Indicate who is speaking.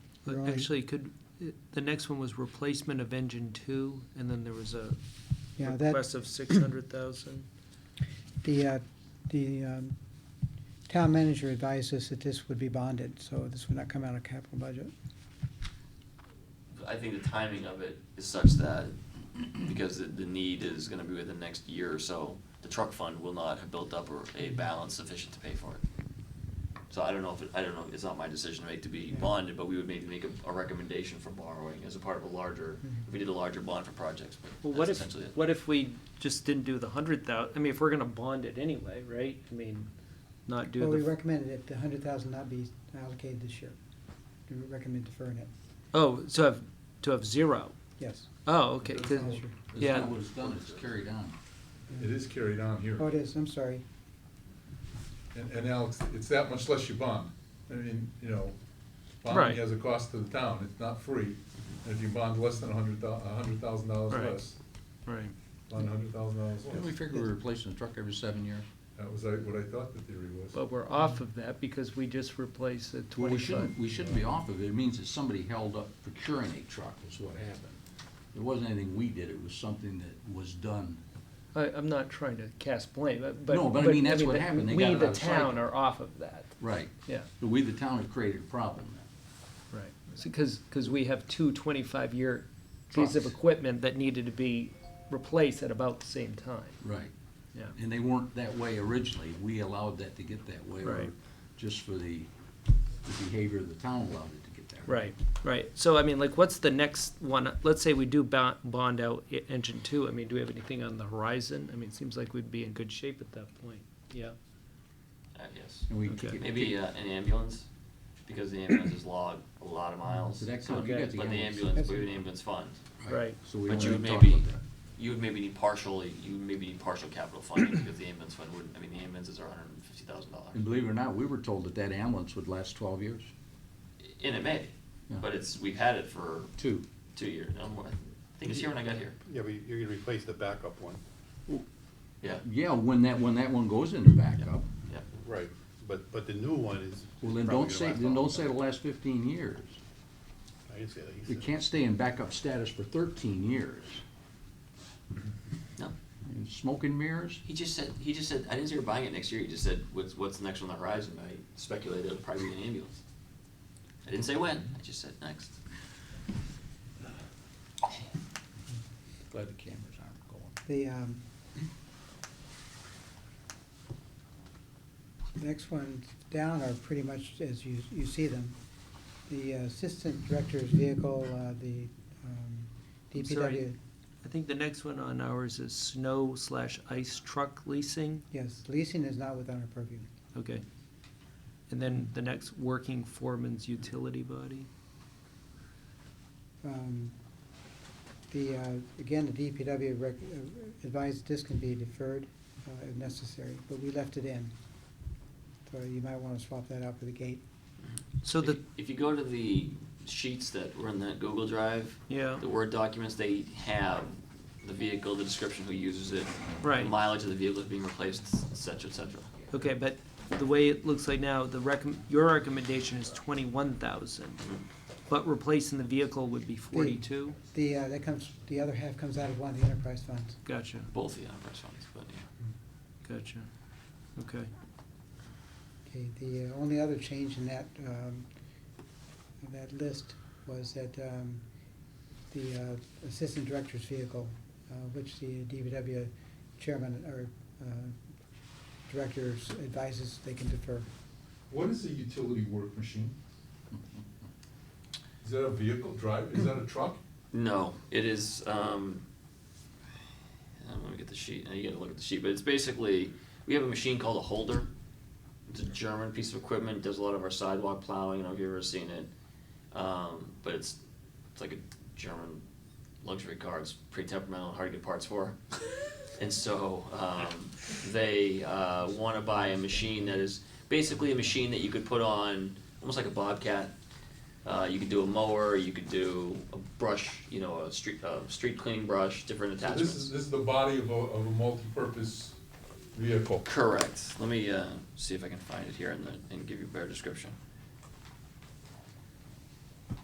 Speaker 1: But
Speaker 2: Right.
Speaker 1: actually, could, the next one was replacement of engine two, and then there was a
Speaker 2: Yeah, that,
Speaker 1: request of six hundred thousand.
Speaker 2: the, uh, the um, town manager advised us that this would be bonded, so this would not come out of capital budget.
Speaker 3: I think the timing of it is such that, because the, the need is gonna be within the next year or so, the truck fund will not have built up a- a balance sufficient to pay for it. So I don't know if, it- I don't know, it's not my decision to make to be
Speaker 2: Yeah.
Speaker 3: bonded, but we would maybe make a, a recommendation for borrowing as a part of a larger,
Speaker 4: Mm-hmm.
Speaker 3: if we did a larger bond for projects,
Speaker 1: Well,
Speaker 3: but
Speaker 1: what
Speaker 3: that's
Speaker 1: if,
Speaker 3: essentially it.
Speaker 1: what if we just didn't do the hundred thou, I mean, if we're gonna bond it anyway, right? I mean, not
Speaker 2: Well,
Speaker 1: do
Speaker 2: we
Speaker 1: the,
Speaker 2: recommended that the hundred thousand not be allocated this year. We recommend deferring it,
Speaker 1: oh, so have, to have zero.
Speaker 2: yes.
Speaker 1: Oh, okay, 'cause-
Speaker 2: This year.
Speaker 1: Yeah.
Speaker 4: It's not what it's done, it's carried on.
Speaker 5: It is carried on here.
Speaker 2: Oh, it is, I'm sorry.
Speaker 5: And, and Alex, it's that much less you bond. I mean, you know,
Speaker 1: Right.
Speaker 5: bonding has a cost to the town, it's not free. And if you bond less than a hundred thou, a hundred thousand dollars
Speaker 1: Right.
Speaker 5: less,
Speaker 1: right.
Speaker 5: bond a hundred thousand dollars
Speaker 4: Didn't we
Speaker 5: less.
Speaker 4: figure we're replacing the truck every seven years?
Speaker 5: That was like what I thought the theory was.
Speaker 1: But we're off of that because we just replaced the
Speaker 4: Well, we
Speaker 1: twenty-five.
Speaker 4: shouldn't, we shouldn't be off of it. It means that somebody held up procuring a truck is what happened. It wasn't anything we did, it was something that was done.
Speaker 1: I, I'm not trying to cast blame, but, but.
Speaker 4: No, but I mean, that's what
Speaker 1: the-
Speaker 4: happened. They got it
Speaker 1: We,
Speaker 4: out
Speaker 1: the
Speaker 4: of sight.
Speaker 1: town, are off of that,
Speaker 4: Right.
Speaker 1: yeah.
Speaker 4: But we, the town, have created a problem then.
Speaker 1: Right, because, because we have two 25-year pieces of
Speaker 4: Trucks.
Speaker 1: equipment that needed to be replaced at about the same time,
Speaker 4: Right.
Speaker 1: yeah.
Speaker 4: And they weren't that way originally. We allowed that to get that way. or
Speaker 1: Right.
Speaker 4: Just for the, the behavior of the town allowed it to get that way.
Speaker 1: Right, right, so I mean, like, what's the next one, let's say we do bond, bond out e- engine two, I mean, do we have anything on the horizon? I mean, it seems like we'd be in good shape at that point, yeah,
Speaker 3: Uh, yes.
Speaker 4: And we
Speaker 1: Okay.
Speaker 4: kick it-
Speaker 3: Maybe, uh, an ambulance, because the ambulances log a lot of miles.
Speaker 4: So that comes- you
Speaker 1: Okay.
Speaker 4: got the
Speaker 3: But the
Speaker 4: ambulance.
Speaker 3: ambulance, we have an ambulance fund.
Speaker 1: Right.
Speaker 4: So we
Speaker 3: But
Speaker 4: don't
Speaker 3: you
Speaker 4: even
Speaker 3: would
Speaker 4: talk about
Speaker 3: maybe,
Speaker 4: that.
Speaker 3: you would maybe need partially, you would maybe need partial capital funding because the ambulance fund wouldn't, I mean, the ambulances are hundred and fifty thousand dollars.
Speaker 4: And believe it or not, we were told that that ambulance would last twelve years.
Speaker 3: And it may,
Speaker 4: Yeah.
Speaker 3: but it's, we've had it for
Speaker 4: Two.
Speaker 3: two years, no more, I think it's here when I got here,
Speaker 6: Yeah, but you're gonna replace the backup one.
Speaker 3: yeah,
Speaker 4: Yeah, when that, when that one goes into backup,
Speaker 3: yeah.
Speaker 6: Right. But, but the new one is.
Speaker 4: well, then
Speaker 6: probably
Speaker 4: don't
Speaker 6: gonna
Speaker 4: say,
Speaker 6: last
Speaker 4: then
Speaker 6: all
Speaker 4: don't say
Speaker 6: time.
Speaker 4: the last fifteen years.
Speaker 6: I didn't say that. He
Speaker 4: It
Speaker 6: said-
Speaker 4: can't stay in backup status for thirteen years.
Speaker 3: No,
Speaker 4: And Smoke and mirrors?
Speaker 3: he just said, he just said, I didn't say we're buying it next year, he just said, what's, what's next on the horizon, I speculated it'll probably be an ambulance. I didn't say when, I just said next.
Speaker 4: Glad the cameras aren't going.
Speaker 2: The, um, next ones down are pretty much as you, you see them. The assistant director's vehicle, uh, the, um,
Speaker 1: I'm sorry.
Speaker 2: DPW,
Speaker 1: I think the next one on ours is snow slash ice truck leasing,
Speaker 2: yes, leasing is not within our purview.
Speaker 1: okay. And then the next, working foreman's utility body,
Speaker 2: Um, The, uh, again, the DPW rec- uh, advised this can be deferred uh, if necessary, but we left it in. So you might want to swap that out for the gate.
Speaker 1: so the,
Speaker 3: If- If you go to the sheets that were in that Google Drive,
Speaker 1: yeah,
Speaker 3: the Word documents, they have the vehicle, the description, who uses it,
Speaker 1: right.
Speaker 3: mileage of the vehicle is being replaced, et cetera, et cetera.
Speaker 1: Okay, but the way it looks like now, the recom, your recommendation is twenty-one thousand, but replacing the vehicle would be forty-two?
Speaker 2: The, uh, that comes, the other half comes out of one of the enterprise funds.
Speaker 1: Gotcha,
Speaker 3: Both the enterprise funds, but yeah.
Speaker 1: gotcha, okay.
Speaker 2: Okay, the uh, only other change in that, um, in that list was that, um, the uh, assistant director's vehicle, uh, which the DPW chairman or, uh, directors advises they can defer.
Speaker 5: What is a utility work machine? Is that a vehicle drive, is that a truck?
Speaker 3: No, it is, um, um, let me get the sheet, now you gotta look at the sheet, but it's basically, we have a machine called a holder. It's a German piece of equipment, does a lot of our sidewalk plowing, I don't know if you've ever seen it. Um, but it's, it's like a German luxury car, it's pretty temperamental, and hard to get parts for. And so, um, they, uh, wanna buy a machine that is basically a machine that you could put on, almost like a Bobcat. Uh, you could do a mower, you could do a brush, you know, a street, uh, street cleaning brush, different
Speaker 5: So
Speaker 3: attachments.
Speaker 5: This is, this is the body of a, of a multi-purpose vehicle.
Speaker 3: Correct. Let me uh, see if I can find it here and, then- and give you a better description.